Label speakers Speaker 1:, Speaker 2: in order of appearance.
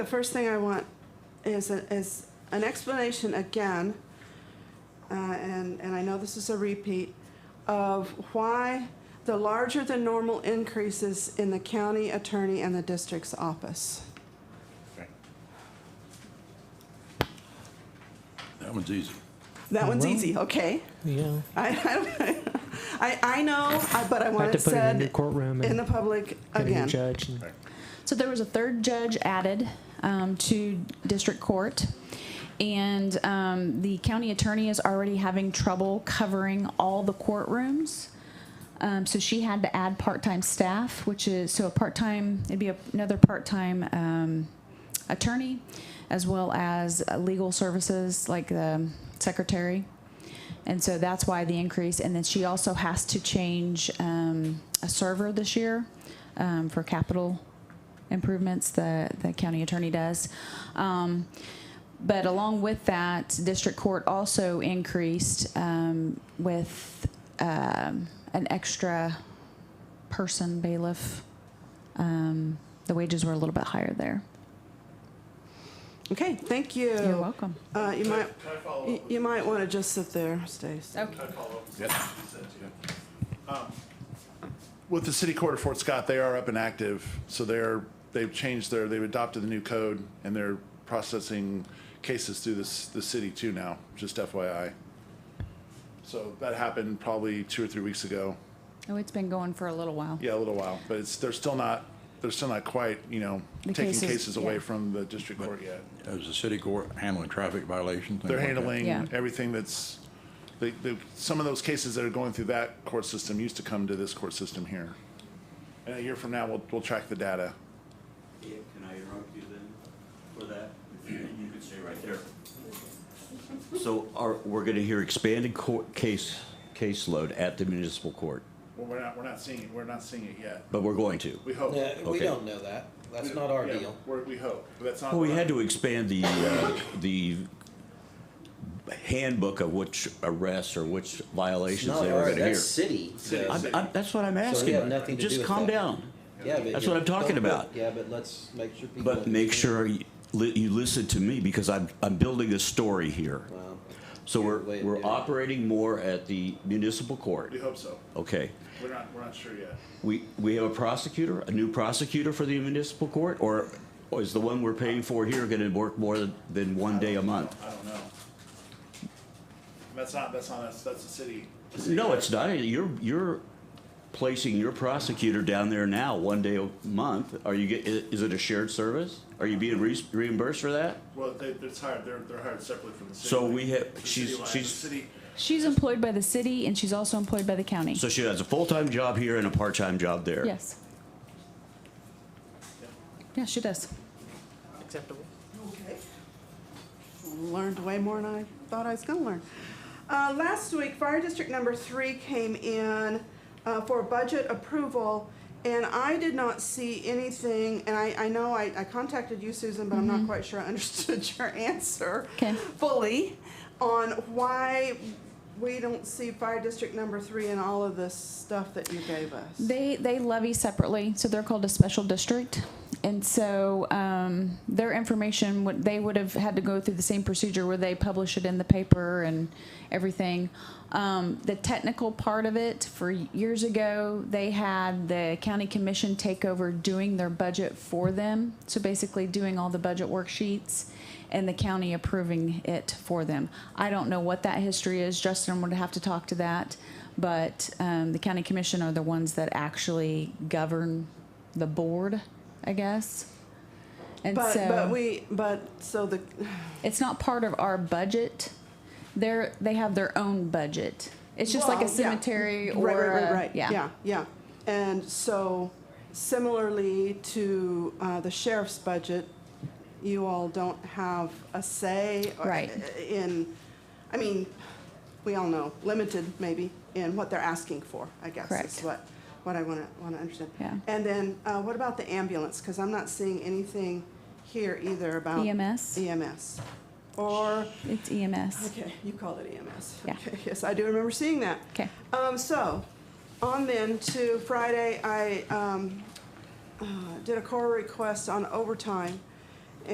Speaker 1: The first thing I want is, a- is an explanation again, uh, and, and I know this is a repeat, of why the larger than normal increases in the county attorney and the district's office.
Speaker 2: That one's easy.
Speaker 1: That one's
Speaker 3: Well-
Speaker 1: easy, okay?
Speaker 3: Yeah.
Speaker 1: I, I, don't- I, I know, I- but I want
Speaker 3: Had to
Speaker 1: it
Speaker 3: put it in
Speaker 1: said
Speaker 3: the courtroom
Speaker 1: in
Speaker 3: and
Speaker 1: the public
Speaker 3: get a new
Speaker 1: again.
Speaker 3: judge. and-
Speaker 4: So there was a third judge added um, to district court. And um, the county attorney is already having trouble covering all the courtrooms. Um, so she had to add part-time staff, which is, so a part-time, it'd be a- another part-time um, attorney, as well as uh, legal services, like the secretary. And so that's why the increase, and then she also has to change um, a server this year um, for capital improvements, the, the county attorney does. Um, But along with that, district court also increased um, with um, an extra person bailiff. Um, The wages were a little bit higher there.
Speaker 1: Okay, thank you.
Speaker 4: You're welcome.
Speaker 1: Uh, you might, you- you might want to just sit there, Stace.
Speaker 5: Um, With the city court of Fort Scott, they are up and active, so they're, they've changed their, they've adopted the new code, and they're processing cases through this, the city too now, just FYI. So that happened probably two or three weeks ago,
Speaker 4: Oh, it's been going for a little while.
Speaker 5: yeah, a little while, but it's, they're still not, they're still not quite, you know,
Speaker 4: The
Speaker 5: taking
Speaker 4: cases,
Speaker 5: cases away
Speaker 4: yeah.
Speaker 5: from the district court yet.
Speaker 2: Is the city court handling traffic violations? things
Speaker 5: They're
Speaker 2: like that?
Speaker 5: handling
Speaker 4: Yeah.
Speaker 5: everything that's, they, they, some of those cases that are going through that court system used to come to this court system here. And a year from now, we'll, we'll track the data.
Speaker 6: Yeah, can I interrupt you then for that? You can stay right there. So are, we're gonna hear expanded court case, caseload at the municipal court,
Speaker 5: Well, we're not, we're not seeing it, we're not seeing it yet.
Speaker 6: but we're going to.
Speaker 5: We hope.
Speaker 7: Yeah, we
Speaker 6: Okay.
Speaker 7: don't know that. That's not our
Speaker 5: Yeah,
Speaker 7: deal.
Speaker 5: We're, we hope, but that's not.
Speaker 6: Well, we
Speaker 5: what
Speaker 6: had
Speaker 5: I-
Speaker 6: to expand the, uh, the handbook of which arrests or which
Speaker 7: It's
Speaker 6: violations
Speaker 7: not
Speaker 6: they were
Speaker 7: our,
Speaker 6: gonna hear.
Speaker 7: that's city. so-
Speaker 6: I'm, I'm, that's what I'm asking.
Speaker 7: had nothing to do
Speaker 6: Just
Speaker 7: with
Speaker 6: calm
Speaker 7: that.
Speaker 6: down.
Speaker 7: Yeah, but
Speaker 6: That's
Speaker 7: you-
Speaker 6: what I'm talking
Speaker 7: don't put-
Speaker 6: about.
Speaker 7: Yeah, but let's make sure people.
Speaker 6: But make sure you, li- you listen to me because I'm, I'm building a story here.
Speaker 7: Wow.
Speaker 6: So we're,
Speaker 7: Way to
Speaker 6: we're
Speaker 7: do it.
Speaker 6: operating more at the municipal court.
Speaker 5: We hope so.
Speaker 6: Okay.
Speaker 5: We're not, we're not sure yet.
Speaker 6: We, we have a prosecutor, a new prosecutor for the municipal court, or or is the one we're paying for here gonna work more than- than one day a month?
Speaker 5: I don't know. That's not, that's not us, that's the city.
Speaker 6: No, it's not. You're, you're placing your prosecutor down there now, one day a month. Are you get, i- is it a shared service? Are you being re- reimbursed for that?
Speaker 5: Well, they, they're hired, they're, they're hired separately from the city.
Speaker 6: So
Speaker 5: Like,
Speaker 6: we have-
Speaker 5: the city
Speaker 6: she's-
Speaker 5: line, the
Speaker 6: she's-
Speaker 5: City,
Speaker 4: She's employed by the city and she's also employed by the county.
Speaker 6: So she has a full-time job here and a part-time job there?
Speaker 4: Yes. Yeah, she does.
Speaker 1: learned way more than I thought I was going to learn. Uh, last week, Fire District Number Three came in uh, for budget approval, and I did not see anything. And I, I know I, I contacted you, Susan, but I'm not quite sure I understood your answer
Speaker 4: Mm-hmm. Okay.
Speaker 1: fully on why we don't see Fire District Number Three and all of this stuff that you gave us.
Speaker 4: They, they levy separately, so they're called a special district. And so um, their information, would they would have had to go through the same procedure where they publish it in the paper and everything. Um, The technical part of it, for years ago, they had the county commission take over doing their budget for them. So basically doing all the budget worksheets and the county approving it for them. I don't know what that history is. Justin would have to talk to that. But um, the county commission are the ones that actually govern the board, I guess. And
Speaker 1: but
Speaker 4: so
Speaker 1: but we but so the
Speaker 4: it's not part of our budget. They're they have their own budget. It's just like
Speaker 1: Well,
Speaker 4: a
Speaker 1: yeah.
Speaker 4: cemetery or
Speaker 1: right, right, right,
Speaker 4: a-
Speaker 1: right. yeah, yeah. And so, similarly to uh, the sheriff's budget, you all don't have a say or-
Speaker 4: Right.
Speaker 1: in. I mean, we all know limited maybe in what they're asking for. I guess is
Speaker 4: Correct.
Speaker 1: what what I want to want to understand.
Speaker 4: Yeah.
Speaker 1: And then, uh, what about the ambulance? Because I'm not seeing anything here either about
Speaker 4: EMS?
Speaker 1: EMS, or
Speaker 4: It's E EMS.
Speaker 1: Okay, you called it EMS.
Speaker 4: Yeah.
Speaker 1: Okay, Yes, I do remember seeing that.
Speaker 4: Okay.
Speaker 1: Um, so, on then to Friday, I, um, uh, did a call request on overtime